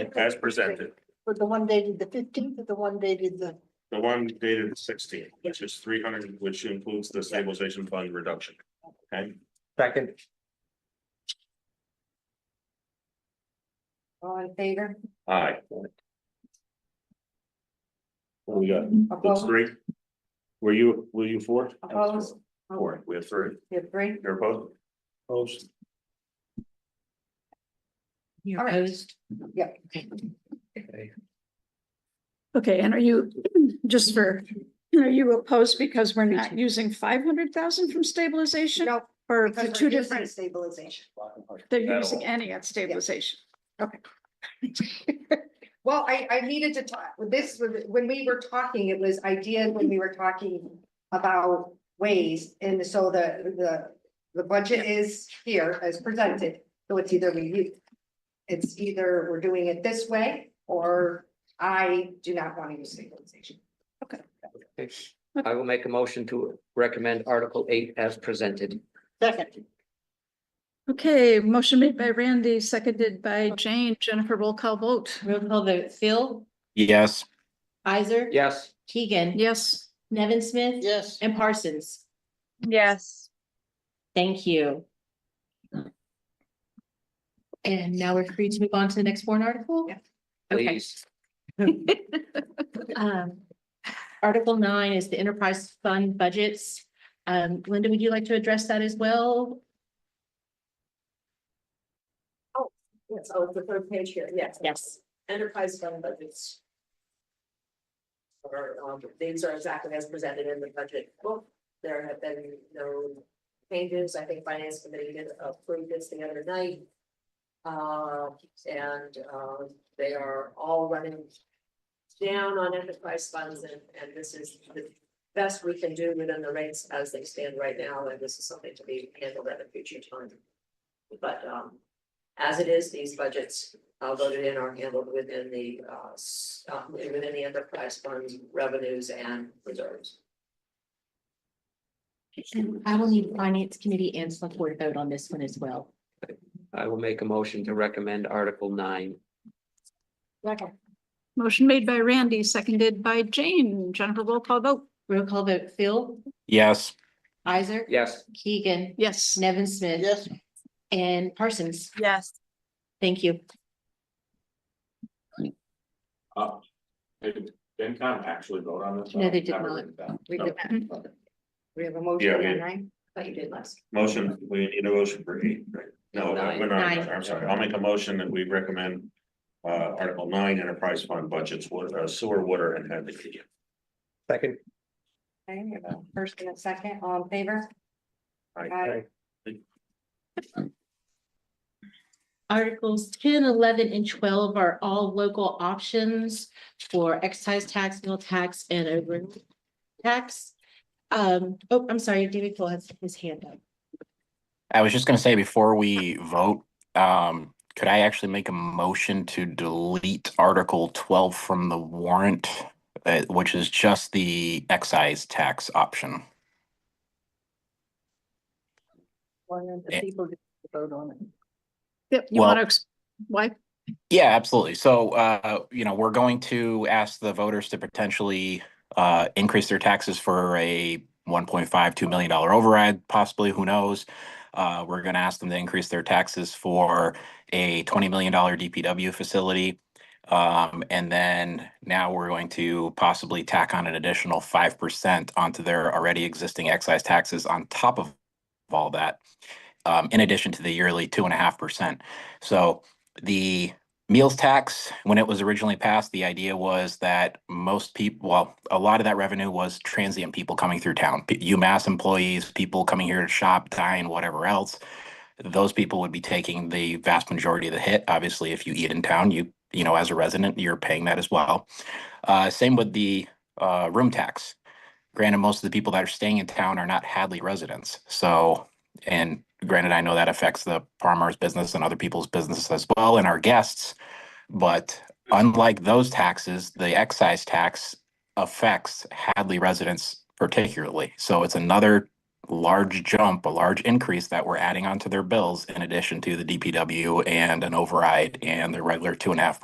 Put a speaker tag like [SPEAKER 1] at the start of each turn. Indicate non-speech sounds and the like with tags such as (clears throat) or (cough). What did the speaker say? [SPEAKER 1] as presented,
[SPEAKER 2] For the one dated the fifteenth, or the one dated the,
[SPEAKER 1] the one dated sixteen, which is three hundred, which includes the stabilization fund reduction. Okay,
[SPEAKER 3] Second,
[SPEAKER 2] all in favor?
[SPEAKER 1] aye. What do we got? That's
[SPEAKER 2] Opposed?
[SPEAKER 1] three. Were you, were you four?
[SPEAKER 2] Opposed?
[SPEAKER 1] Four, we have three.
[SPEAKER 2] You have three?
[SPEAKER 1] You're opposed? Opposed.
[SPEAKER 2] All
[SPEAKER 4] You're
[SPEAKER 2] right.
[SPEAKER 4] opposed?
[SPEAKER 2] Yeah.
[SPEAKER 4] Okay.
[SPEAKER 5] Okay, and are you, (clears throat) just for, are you opposed because we're not using five hundred thousand from stabilization?
[SPEAKER 2] No,
[SPEAKER 5] Or
[SPEAKER 2] because
[SPEAKER 5] the
[SPEAKER 2] we're
[SPEAKER 5] two
[SPEAKER 2] using
[SPEAKER 5] different, (laughs)
[SPEAKER 2] Stabilization.
[SPEAKER 5] they're
[SPEAKER 1] That'll-
[SPEAKER 5] using any at stabilization?
[SPEAKER 2] Well, I, I needed to talk, this, was- when we were talking, it was idea when we were talking about ways. And so the, the, the budget is here as presented, so it's either we, it's either we're doing it this way or I do not want to use stabilization.
[SPEAKER 3] I will make a motion to recommend Article eight as presented.
[SPEAKER 2] Second.
[SPEAKER 5] Okay, motion made by Randy, seconded by Jane. Jennifer, roll call vote.
[SPEAKER 4] Roll call vote, Phil,
[SPEAKER 6] Yes,
[SPEAKER 4] Isaac.
[SPEAKER 3] Yes,
[SPEAKER 4] Keegan,
[SPEAKER 5] Yes.
[SPEAKER 4] Nevin Smith. Yes. And Parsons.
[SPEAKER 7] Yes,
[SPEAKER 4] Thank you. And now we're free to move on to the next warrant article?
[SPEAKER 2] Yeah.
[SPEAKER 4] Okay.
[SPEAKER 3] please.
[SPEAKER 4] Um, Article nine is the enterprise fund budgets. Um, Linda, would you like to address that as well?
[SPEAKER 8] Yes, oh, it's the third page here, yes.
[SPEAKER 4] Yes.
[SPEAKER 8] Enterprise fund budgets. Or, um, these are exactly as presented in the budget book. There have been no changes. I think finance committee did approve this the other night. Uh, and, um, they are all running down on enterprise funds and, and this is the best we can do within the rates as they stand right now, and this is something to be handled at a future time. But, um, as it is, these budgets uh voted in are handled within the uh s- uh, within the enterprise funds revenues and reserves.
[SPEAKER 4] And I will need finance committee and select board vote on this one as well.
[SPEAKER 3] I will make a motion to recommend Article nine.
[SPEAKER 5] Motion made by Randy, seconded by Jane. Jennifer, roll call vote.
[SPEAKER 4] Roll call vote, Phil,
[SPEAKER 6] yes,
[SPEAKER 4] Isaac.
[SPEAKER 3] Yes,
[SPEAKER 4] Keegan,
[SPEAKER 5] Yes.
[SPEAKER 4] Nevin Smith. And Parsons.
[SPEAKER 7] yes.
[SPEAKER 4] Thank you.
[SPEAKER 1] Uh, Did FinCom actually vote on this?
[SPEAKER 4] No, they did not.
[SPEAKER 2] We
[SPEAKER 4] Oh.
[SPEAKER 2] did
[SPEAKER 4] Mm-hmm.
[SPEAKER 2] not. We have a motion,
[SPEAKER 1] Yeah, we-
[SPEAKER 2] on nine.
[SPEAKER 8] But you did last.
[SPEAKER 1] Motion, we need a motion for eight, right? No, uh,
[SPEAKER 3] Nine.
[SPEAKER 1] we're
[SPEAKER 4] Nine.
[SPEAKER 1] not, I'm sorry, I'll make a motion that we recommend. Uh, Article nine, enterprise fund budgets, water, uh, sewer, water and energy.
[SPEAKER 3] second.
[SPEAKER 2] Okay, we have a first and a second, all in favor?
[SPEAKER 1] Aye.
[SPEAKER 2] Aye.
[SPEAKER 4] Articles 10, 11, and twelve are all local options for excise tax, meal tax, and over tax. Um, oh, I'm sorry, David Cole has his hand up.
[SPEAKER 6] I was just gonna say before we vote, um, could I actually make a motion to delete Article twelve from the warrant? Uh, which is just the excise tax option.
[SPEAKER 2] One of the
[SPEAKER 6] Yeah.
[SPEAKER 2] people that vote on it.
[SPEAKER 5] Yep, you
[SPEAKER 6] Well-
[SPEAKER 5] want to, why?
[SPEAKER 6] Yeah, absolutely. So, uh, you know, we're going to ask the voters to potentially uh, increase their taxes for a one point five, two million dollar override, possibly, who knows? Uh, we're gonna ask them to increase their taxes for a twenty million dollar DPW facility. Um, and then now we're going to possibly tack on an additional five percent onto their already existing excise taxes on top of all that. Um, in addition to the yearly two and a half percent. So the Meals tax, when it was originally passed, the idea was that most people, well, a lot of that revenue was transient people coming through town, P- UMass employees, people coming here to shop, dine, whatever else. Those people would be taking the vast majority of the hit. Obviously, if you eat in town, you, you know, as a resident, you're paying that as well. Uh, same with the uh, room tax. Granted, most of the people that are staying in town are not Hadley residents. So, and granted, I know that affects the farmer's business and other people's business as well and our guests. But unlike those taxes, the excise tax affects Hadley residents particularly. So it's another large jump, a large increase that we're adding onto their bills in addition to the DPW and an override and the regular two and a half